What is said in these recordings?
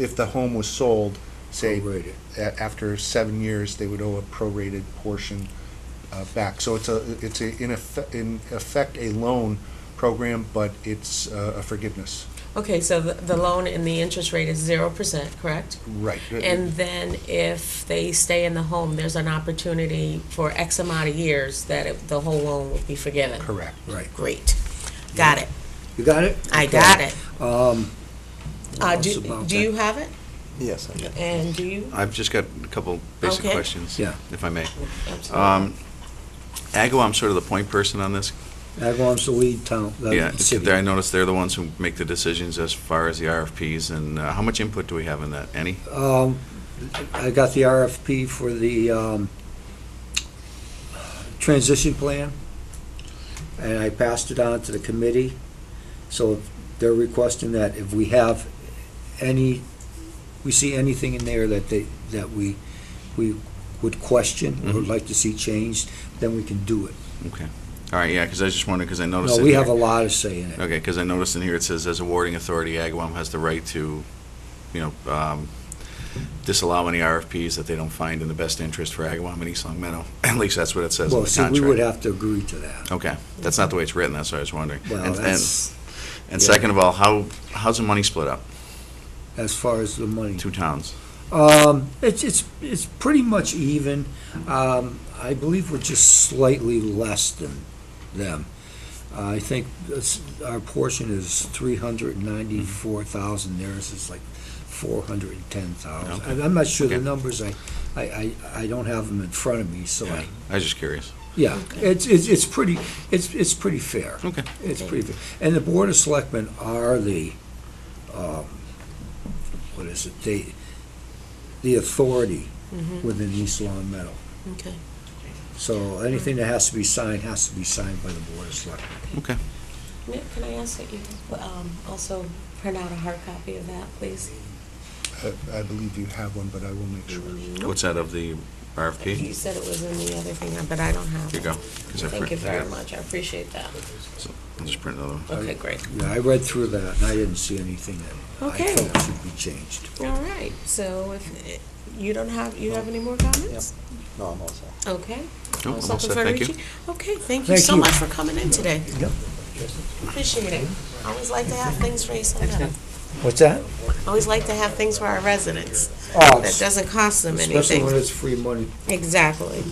if the home was sold, say, Prorated. a- after seven years, they would owe a prorated portion uh, back. So it's a, it's a, in effect, in effect, a loan program, but it's uh, a forgiveness. Okay, so the, the loan and the interest rate is zero percent, correct? Right. And then if they stay in the home, there's an opportunity for X amount of years that it- the whole loan will be forgiven. Correct. Right. Great. Got it. You got it? I got it. Um, Uh, Well, do, it's about do that. you have it? Yes, I do. And do you? I've just got a couple basic Okay. questions, Yeah. if I may. Absolutely. Um, Agawam sort of the point person on this. Agawam's the lead town, Yeah, the it's- city. I noticed they're the ones who make the decisions as far as the RFPs, and uh, how much input do we have in that? Any? Um, I got the RFP for the, um, transition plan, and I passed it on to the committee. So they're requesting that if we have any, we see anything in there that they, that we, we would question, or would Mhm. like to see changed, then we can do it. Okay. All right, yeah, because I was just wondering, because I noticed. No, in we have a here- lot of say in it. Okay, because I noticed in here it says, as a awarding authority, Agawam has the right to, you know, um, disallow any RFPs that they don't find in the best interest for Agawam and East Long Meadow. At least that's what it says in Well, the see, we would contract. have to agree to that. Okay, that's not the way it's written, that's what I was wondering. Well, And- and- that's, And Yeah. second of all, how, how's the money split up? as far as the money. Two towns? Um, it's, it's, it's pretty much even. Um, I believe we're just slightly less than them. I think this, our portion is three hundred and ninety-four thousand, theirs is like four hundred and ten thousand. Okay. I'm not sure the Okay. numbers, I, I, I, I don't have them in front of me, so Yeah. I, I was just curious. yeah, it's, it's, it's pretty, it's, it's pretty fair. Okay. It's pretty fair. And the Board of Selectmen are the, um, what is it, they, the authority Mhm. within East Long Meadow. Okay. So anything that has to be signed has to be signed by the Board of Selectmen. Okay. Nick, can I ask that you, um, also print out a hard copy of that, please? Uh, I believe you have one, but I will make sure. What's that of the You RFP? said it was in the other thing, but I don't have it. Here you go. 'cause I Thank you print- I very got- much, I appreciate that. so I'll just print another one. Okay, great. Yeah, I read through that and I didn't see anything that I Okay. felt should be changed. All right, so if, you don't have, you have any more comments? No, I'm all set. Okay. No, I'm all Councilman set, thank you. Federici? Okay, thank you Thank so you. much for coming in today. Yep. Appreciate it. Always like to have things for East Long Meadow. What's that? Always like to have things for our residents. Oh, That doesn't cost them Especially when anything. it's free money. Exactly.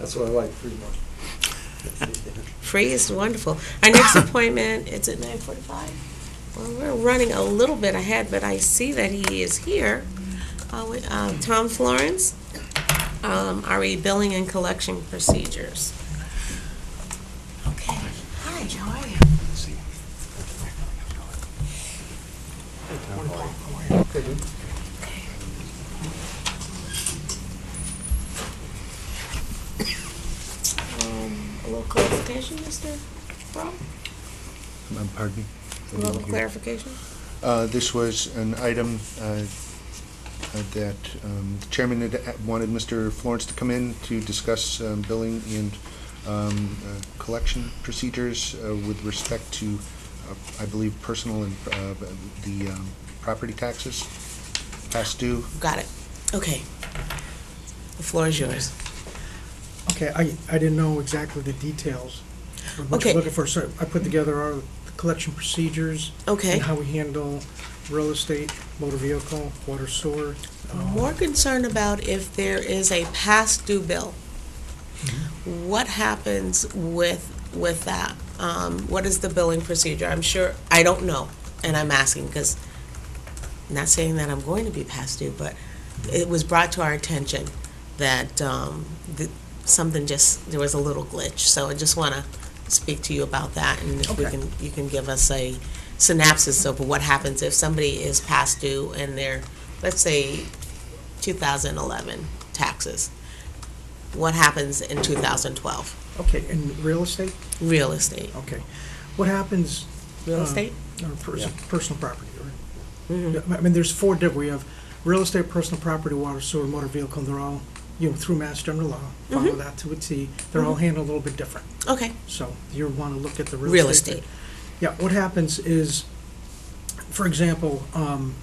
That's what I like, free money. Free is wonderful. Our next appointment, it's at nine forty-five. Well, we're running a little bit ahead, but I see that he is here. Uh, we- uh, Tom Florence, um, RE Billing and Collection Procedures. Okay. Hi, how are you? Um, A little clarification, Mr. Brown? Um, Pardon me? A little clarification? Uh, This was an item uh, uh, that um, the Chairman had a- wanted Mr. Florence to come in to discuss um, billing and um, uh, collection procedures uh, with respect to, uh, I believe, personal and uh, the um, property taxes, past due. Got it. Okay. The floor is yours. Okay, I, I didn't know exactly the details of what Okay. you're looking for, so I put together our collection procedures Okay. and how we handle real estate, motor vehicle, water sewer. um, More concerned about if there is a past due bill. What happens with, with that? Um, what is the billing procedure? I'm sure, I don't know, and I'm asking, because not saying that I'm going to be past due, but it was brought to our attention that, um, that something just, there was a little glitch, so I just want to speak to you about that, and if we Okay. can, you can give us a synopsis of what happens if somebody is past due and they're, let's say, 2011 taxes. What happens in 2012? Okay, and real estate, Real estate. okay. What happens? Real um, estate? Or pers- personal property, right? Mhm. I mean, there's four different, we have real estate, personal property, water, sewer, motor vehicle, and they're all, you know, through Mass General Law, Mm-hmm. follow that to a T. They're all handled a little bit different, Okay, so you want to look at the real estate. real estate. Yeah, what happens is, for example, um,